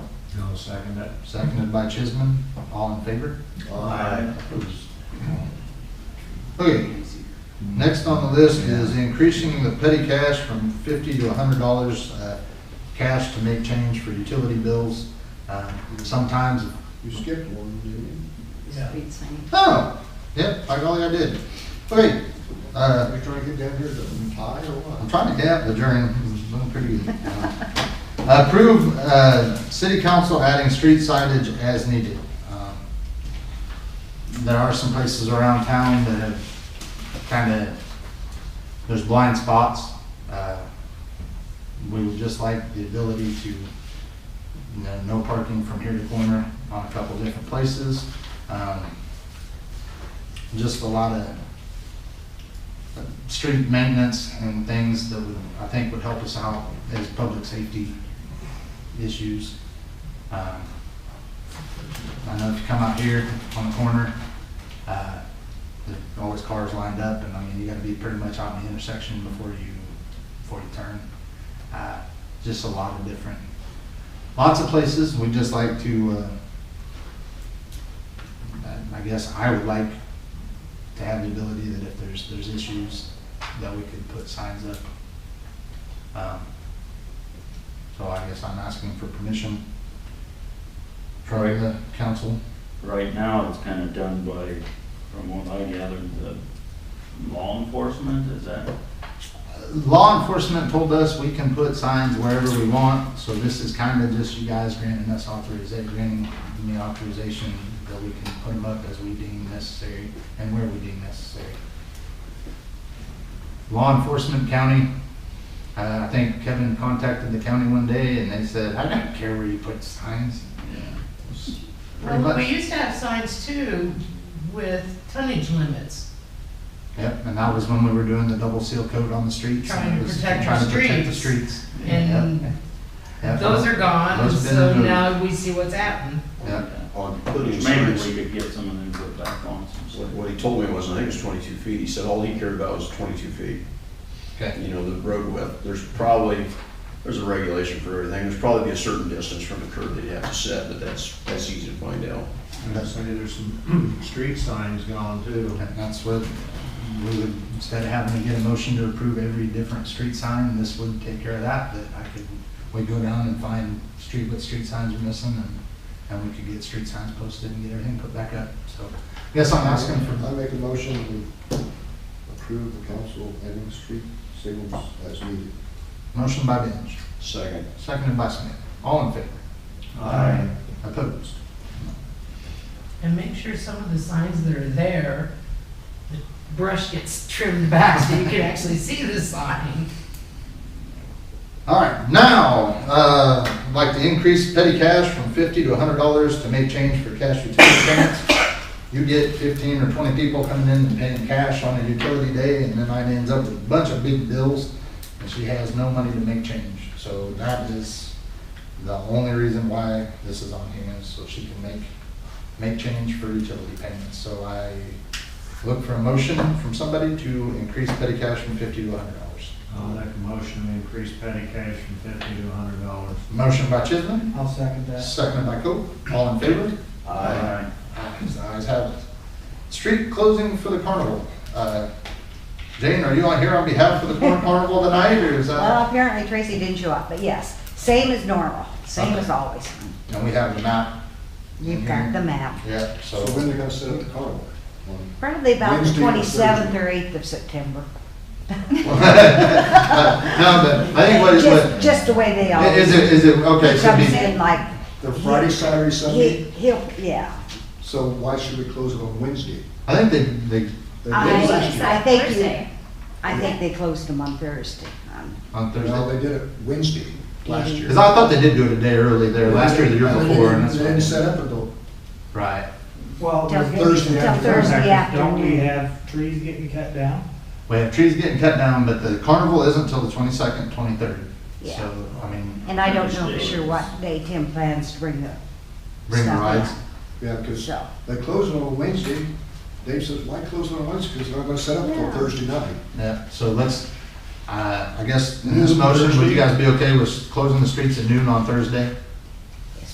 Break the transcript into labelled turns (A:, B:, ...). A: I'll second it.
B: Seconded by Chisholm. All in favor?
A: Aye.
B: Opposed? Okay, next on the list is increasing the petty cash from fifty to hundred dollars uh, cash to make change for utility bills. Uh, Sometimes,
C: You skipped one, didn't
D: Street sign.
B: oh, yep, by golly, I did. Okay,
C: you?
B: uh,
C: Are you trying to get down here to tie or
B: I'm
C: what?
B: trying to gap the journey, I'm doing pretty good. Uh, Approve uh, city council adding street signage as needed. Um, There are some places around town that have kind of, there's blind spots. Uh, We would just like the ability to, you know, no parking from here to corner on a couple different places. Um, Just a lot of street maintenance and things that would, I think would help us out as public safety issues. Um, I know if you come out here on the corner, uh, there's always cars lined up, and I mean, you gotta be pretty much on the intersection before you, before you turn. Uh, Just a lot of different, lots of places, we'd just like to, uh, I- I guess I would like to have the ability that if there's, there's issues, that we could put signs up. Um, So I guess I'm asking for permission. Troy, the council,
E: Right now, it's kind of done by, from what I gathered, the law enforcement, is that?
B: law enforcement told us we can put signs wherever we want, so this is kind of just you guys granting us authorization, granting me authorization that we can put them up as we deem necessary and where we deem necessary. Law enforcement, county, uh, I think Kevin contacted the county one day and they said, I don't care where you put signs. Pretty
F: Well, we
B: much,
F: used to have signs too with tonnage limits,
B: yep, and that was when we were doing the double seal coat on the streets.
F: Trying
B: and it
F: to
B: was
F: protect
B: trying
F: our
B: to protect the
F: streets.
B: streets.
F: and
B: Yep.
F: those are gone, and
B: Those have been
F: so
B: removed.
F: now we see what's happened.
B: Yeah.
C: On putting
E: Maybe
C: signs,
E: we could get some of them put back on some
C: what,
E: stuff.
C: what he told me was, I think it was twenty-two feet, he said all he cared about was twenty-two feet.
B: Okay.
C: You know, the road width, there's probably, there's a regulation for everything, there's probably a certain distance from the curb that you have to set, but that's, that's easy to find out.
A: And I say there's some street signs gone too.
B: And that's what, we would, instead of having to get a motion to approve every different street sign, this would take care of that, that I could, we'd go down and find street, what street signs are missing, and, and we could get street signs posted and get everything put back up, so. Yes, I'm asking
G: I
B: for,
G: make a motion to approve the council adding street signals as needed.
B: motion by Benj,
C: Second.
B: seconded by Smith, all in favor,
A: Aye.
B: opposed?
F: And make sure some of the signs that are there, the brush gets trimmed back so you can actually see the sign.
B: All right, now, uh, I'd like to increase petty cash from fifty to hundred dollars to make change for cash utility payments. You get fifteen or twenty people coming in and paying cash on a utility day, and then I ends up with a bunch of big bills, and she has no money to make change. So that is the only reason why this is on here, is so she can make, make change for utility payments. So I look for a motion from somebody to increase petty cash from fifty to hundred dollars.
A: I'll make a motion to increase petty cash from fifty to a hundred dollars.
B: Motion by Chisholm?
H: I'll second that.
B: Second by Coe, all in favor? Ayes ayes have it. Street closing for the carnival. Uh, Jane, are you on here on behalf of the Corn Carnival tonight, or is that?
D: Well, apparently Tracy didn't show up, but yes, same as normal, same as always.
B: And we have the map,
D: You've got the map.
B: Mm-hmm. yeah,
G: So
B: so,
G: when they're gonna set up the carnival? On-
D: Probably about the
G: Wednesday or
D: twenty-seventh
G: Thursday?
D: or eighth of September.
B: no, but I think what is,
D: Just,
B: what,
D: just the way they always.
B: is it, is it, okay,
D: It
B: so
D: Comes
B: be,
D: in like,
G: They're Friday, Saturday,
D: he,
G: Sunday,
D: he'll, yeah.
G: so why should we close it on Wednesday?
B: I think they, they,
G: They did
D: I,
G: last year.
D: I think you,
I: Thursday.
D: I think they closed them on Thursday. Um,
B: on
G: No, they
B: Thursday.
G: did it Wednesday last year.
B: Because I thought they did do it a day early there, last year, or the year
G: And they
B: before, and
G: didn't- They didn't
B: that's.
G: set up until,
B: Right.
H: Well,
D: Till
H: we're-
G: Thursday
H: yeah,
G: afternoon.
D: Thursday
H: Don't we
D: afternoon.
H: have trees getting cut down?
B: We have trees getting cut down, but the carnival isn't till the twenty-second, twenty-third.
D: Yeah.
B: So, I mean,
D: And I don't know for sure what day Tim plans to bring the
B: bring the
D: stuff
B: rides.
G: yeah, because
D: So,
G: they close it on Wednesday. Dave says, why close it on Wednesday? Because they're not gonna set up until
D: Yeah.
G: Thursday night.
B: Yeah, so let's, uh, I guess, in this motion, would you guys be okay with closing the streets at noon on Thursday?